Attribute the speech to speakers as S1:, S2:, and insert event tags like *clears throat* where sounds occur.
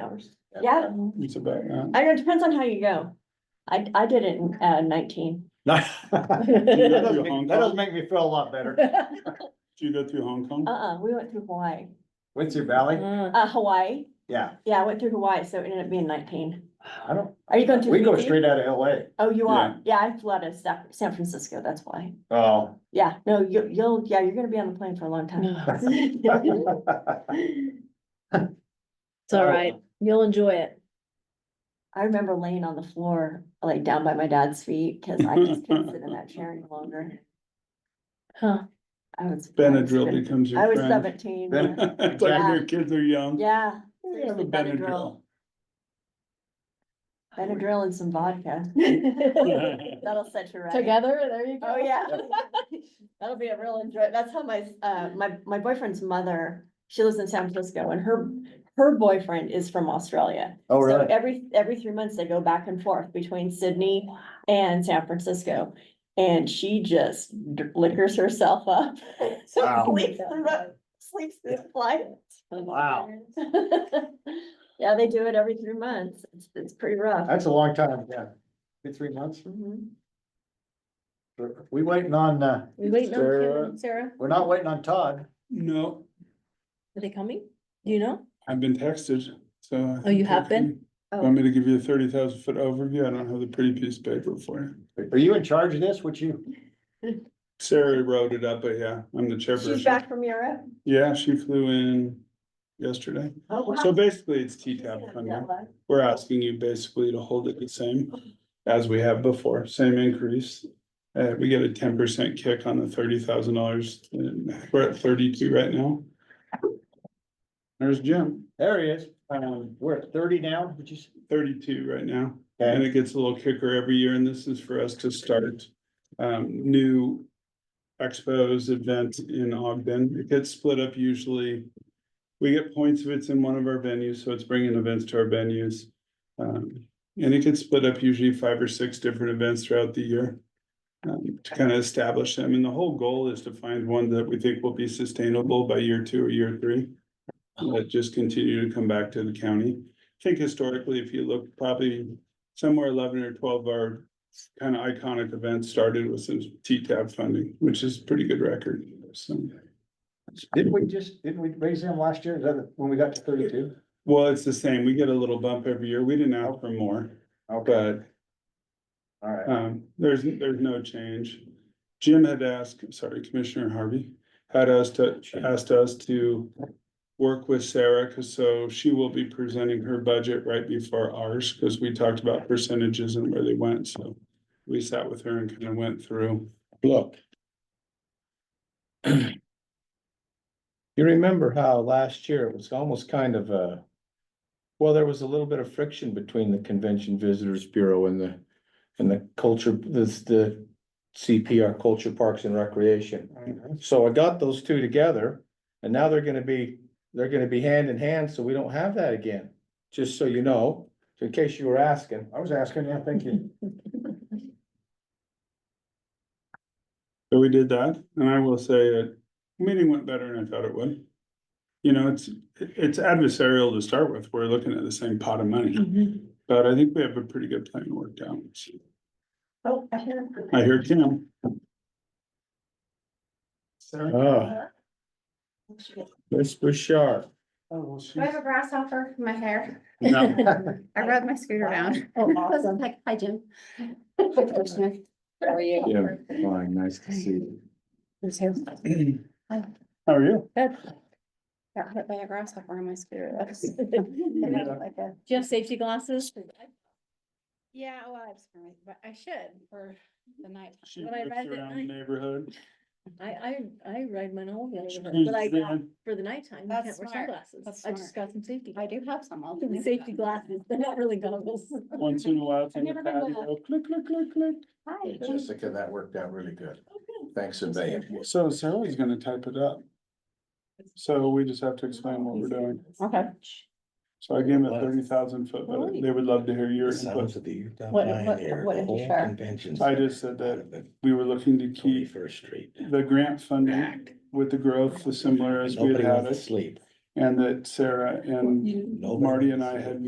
S1: hours. Yeah,
S2: *laughs*
S3: It's about, yeah.
S1: I know, it depends on how you go. I, I did it in uh, nineteen.
S3: go
S2: That
S3: through
S2: doesn't make-
S3: Hong
S2: that
S3: Kong?
S2: doesn't make me feel a lot better.
S3: Do you go through Hong Kong?
S1: Uh-uh, we went through Hawaii,
S2: Windsor Valley,
S1: uh, Hawaii.
S2: yeah,
S1: Yeah, I went through Hawaii, so it ended up being nineteen.
S2: I don't,
S1: Are you going to?
S2: we go
S1: Fiji?
S2: straight out of LA.
S1: Oh, you are? Yeah, I flew out of Sa- San Francisco, that's why. *laughs*
S2: Oh.
S1: Yeah, no, you, you'll, yeah, you're gonna be on the plane for a
S2: *laughs*
S1: long time.
S4: It's all right. You'll enjoy it. *laughs*
S1: I remember laying on the floor, like down by my dad's feet, cause I just couldn't sit in that chair any longer.
S4: Huh.
S1: I was. I was
S3: Benadryl
S1: fifteen.
S3: becomes
S1: I
S3: your
S1: was
S3: friend.
S1: seventeen.
S2: Ben-
S1: yeah.
S3: *laughs* It's like when your kids are young.
S1: Yeah.
S3: They have a
S1: seriously,
S3: Benadryl.
S1: Benadryl and some vodka. *laughs* That'll set you right.
S4: Together, there you go.
S1: Oh,
S5: *laughs*
S1: yeah. *laughs* That'll be a real enjoy. That's how my, uh, my, my boyfriend's mother, she lives in San Francisco and her, her boyfriend is from Australia.
S2: Oh,
S1: So
S2: really?
S1: Every, every three months they go back and forth between Sydney and San Francisco. And she just d- liquors herself up. *laughs* So
S2: Wow.
S1: Sleeps through the- sleeps through the flight.
S2: Wow.
S1: Yeah, they do it every three months. It's, it's pretty rough.
S2: That's a long time, yeah. Two, three months.
S1: Mhm.
S2: We waiting on, uh,
S4: *laughs* We waiting on Kim
S2: Sarah.
S4: and Sarah.
S2: we're not waiting on Todd.
S3: *laughs* No,
S4: Are they coming? Do you know?
S3: I've been texted, so. I
S4: Oh, you
S3: think
S4: have
S3: I can-
S4: been?
S1: Oh.
S3: Want me to give you a thirty thousand foot overview? I don't have the pretty piece of paper for you.
S2: Are you in charge of this? What you?
S3: Sarah wrote it up, but yeah, I'm the
S1: She's
S3: chairperson.
S1: back from Europe.
S3: Yeah, she flew in yesterday.
S1: Oh, wow.
S3: So basically, it's T-TAP
S1: She's
S3: funding.
S1: jet lag.
S3: We're asking you basically to hold it the same as we have before, same increase. Uh, we get a ten percent kick on the thirty thousand dollars, we're at thirty-two right now. There's Jim,
S2: There he is. Um, we're at thirty now, which is,
S3: thirty-two right now, and
S2: okay,
S3: it gets a little kicker every year, and this is for us to start um, new expos event in Ogden. It gets split up usually. We get points if it's in one of our venues, so it's bringing events to our venues. Um, and it gets split up usually five or six different events throughout the year um, to kind of establish them. And the whole goal is to find one that we think will be sustainable by year two or year three. That just continue to come back to the county. I think historically, if you look, probably somewhere eleven or twelve are kind of iconic events started with some T-TAB funding, which is pretty good record. So,
S2: didn't we just, didn't we raise him last year? Is that when we got to thirty-two?
S3: well, it's the same. We get a little bump every year. We didn't ask for more,
S2: Okay,
S3: but
S2: all right.
S3: um, there's, there's no change. Jim had asked, sorry, Commissioner Harvey, had us to, asked us to work with Sarah, because so she will be presenting her budget right before ours, because we talked about percentages and where they went, so we sat with her and kind of went through.
S6: look. You remember how last year it was almost kind of a, well, there was a little bit of friction between the Convention Visitors Bureau and the, and the culture, this, the CPR Culture Parks and Recreation.
S2: Mm-hmm.
S6: So I got those two together and now they're gonna be, they're gonna be hand in hand, so we don't have that again. Just so you know, in case you were asking.
S2: I was asking, yeah, thank you.
S3: So we did that, and I will say it, meeting went better than I thought it would. You know, it's, it's adversarial to start with. We're looking at the same pot of money,
S4: Mhm.
S3: but I think we have a pretty good plan worked out.
S1: Oh, I hear.
S3: I hear Kim. *clears throat* Sarah?
S6: Ah, Miss Bouchard.
S5: Do I have a grasshopper in my hair?
S3: No.
S5: I rode my scooter down.
S4: *laughs*
S1: Oh,
S5: I was like, hi, Jim. How are you?
S6: Yeah, fine, nice to see you.
S4: Who's here?
S3: How are you?
S4: *laughs*
S5: Got hit by a grasshopper on my scooter. That was- I had like a-
S4: Do you have safety glasses?
S5: Yeah, well, I was gonna- but I should for the night.
S3: She
S4: When I
S3: whips
S4: read that
S3: around the
S4: night-
S3: neighborhood.
S4: I, I, I ride mine all the
S3: She's
S4: way, but I got
S3: been-
S4: for the nighttime, you
S5: That's
S4: can't wear
S5: smart.
S4: sunglasses.
S5: That's
S4: I just got some safety.
S5: I do have some. I'll do that.
S4: Safety glasses, they're not really goggles.
S3: Once in a while, it's in the
S5: I've never been
S3: patio, click, click, click, click.
S5: Hi.
S6: Jessica, that worked out really good. Thanks a million.
S3: So Sarah's gonna type it up. So we just have to explain what we're doing.
S5: Okay.
S3: So I gave them a thirty thousand foot, but they would love to hear your input.
S1: What- what- what did you share?
S3: I just said that we were looking to keep
S6: Twenty-first Street.
S3: the grant funding with the growth as similar as we had
S6: Nobody
S3: had
S6: wants to
S3: it.
S6: sleep.
S1: Mm-hmm.
S3: and that Sarah and Marty and I had